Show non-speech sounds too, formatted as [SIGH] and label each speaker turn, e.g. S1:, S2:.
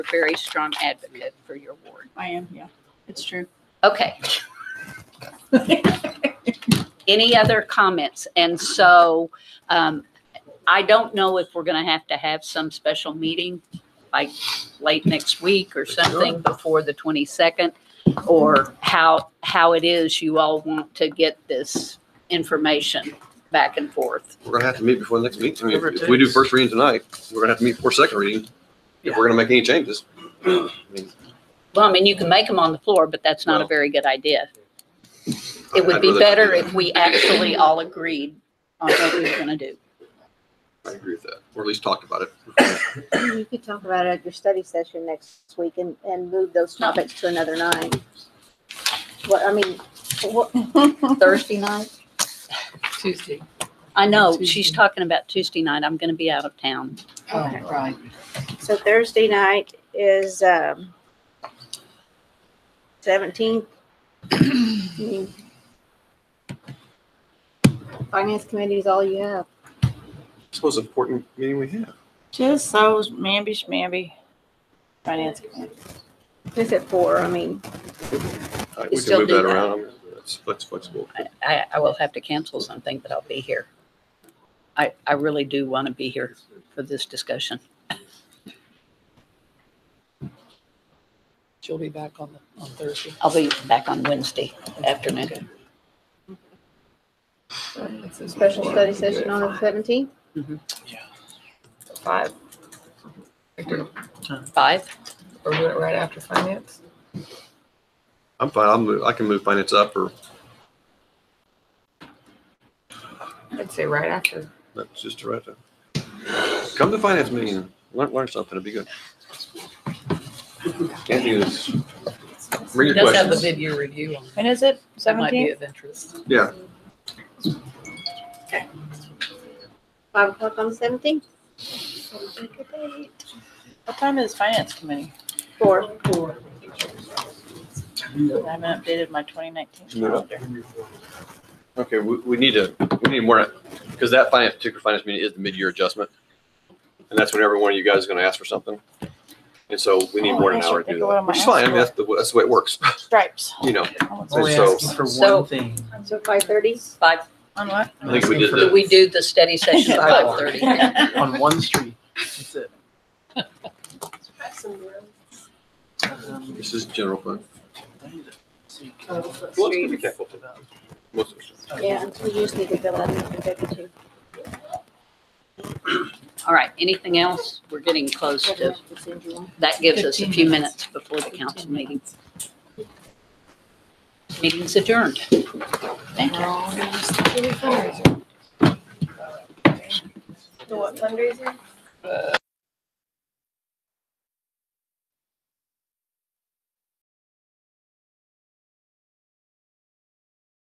S1: a very strong advocate for your ward.
S2: I am, yeah. It's true.
S1: Okay. Any other comments? And so um, I don't know if we're going to have to have some special meeting like late next week or something before the 22nd or how, how it is you all want to get this information back and forth.
S3: We're gonna have to meet before the next meeting. I mean, if we do first reading tonight, we're gonna have to meet before second reading. If we're gonna make any changes. [CLEARS THROAT] I mean,
S1: Well, I mean, you can make them on the floor, but that's not a very good idea. It would
S3: I'd
S1: be
S3: rather-
S1: better if we actually all agreed on what we were going to do.
S3: I agree with that, or at least talk about it.
S4: You could talk about it at your study session next week and, and move those
S1: No.
S4: topics to another night. What, I mean, what, Thursday night?
S5: Tuesday.
S1: I know, she's
S5: Tuesday.
S1: talking about Tuesday night. I'm gonna be out of town.
S5: Oh,
S4: Okay.
S5: right.
S4: So Thursday night is, um, seventeenth. Finance committee is all you have.
S3: This was an important meeting we have.
S2: Just so mamby schmamby. Finance committee.
S4: Is it four? I mean,
S3: All right,
S1: You
S3: We
S1: still
S3: can move
S1: do
S3: that
S1: that.
S3: around. That's that's flexible.
S1: I- I, I will have to cancel something, but I'll be here. I, I really do want to be here for this discussion.
S5: She'll be back on the, on Thursday.
S1: I'll be back on Wednesday afternoon.
S4: special study session on the seventeenth?
S6: Five,
S1: Five?
S6: or do it right after finance?
S3: I'm fine. I'll move, I can move finance up or
S6: I'd say right after.
S3: that's just right. Come to finance meeting. Learn, learn something. It'd be good. Can't do this.
S5: She
S3: Bring your
S5: does have a
S3: questions.
S5: video review on.
S2: When is it?
S5: That might be
S2: Seventeenth?
S5: of interest.
S3: Yeah,
S4: Five o'clock on the seventeenth?
S2: What time is finance committee?
S4: Four.
S2: I haven't updated my twenty nineteen
S3: No.
S2: calendar.
S3: okay, we, we need to, we need more, because that finance, particular finance meeting is the mid-year adjustment. And that's when every one of you guys is gonna ask for something. And so we need
S2: Oh,
S3: more than
S2: I
S3: an
S2: should
S3: hour to
S2: think
S3: do
S2: of what
S3: that,
S2: I'm
S3: which is
S2: gonna
S3: fine, I mean, that's
S2: ask
S3: the, that's the way it works, [LAUGHS]
S2: Stripes. Oh,
S3: you know.
S7: Only
S3: So-
S7: asking for
S1: So-
S7: one thing.
S4: So five thirty?
S1: Five,
S2: On what?
S3: I think we did
S1: do
S3: the,
S1: we do the study session at five thirty?
S2: [LAUGHS]
S7: On one street, that's it. Um,
S3: this is general fund. Well, it's gonna be
S7: Street.
S3: capital too. Most of it.
S4: Yeah, we usually do that on the executive.
S1: All right, anything else? We're getting close to, that gives us a
S5: 15
S1: few
S5: minutes.
S1: minutes before the council meeting. Meeting's adjourned. Thank you.
S2: The what fundraiser?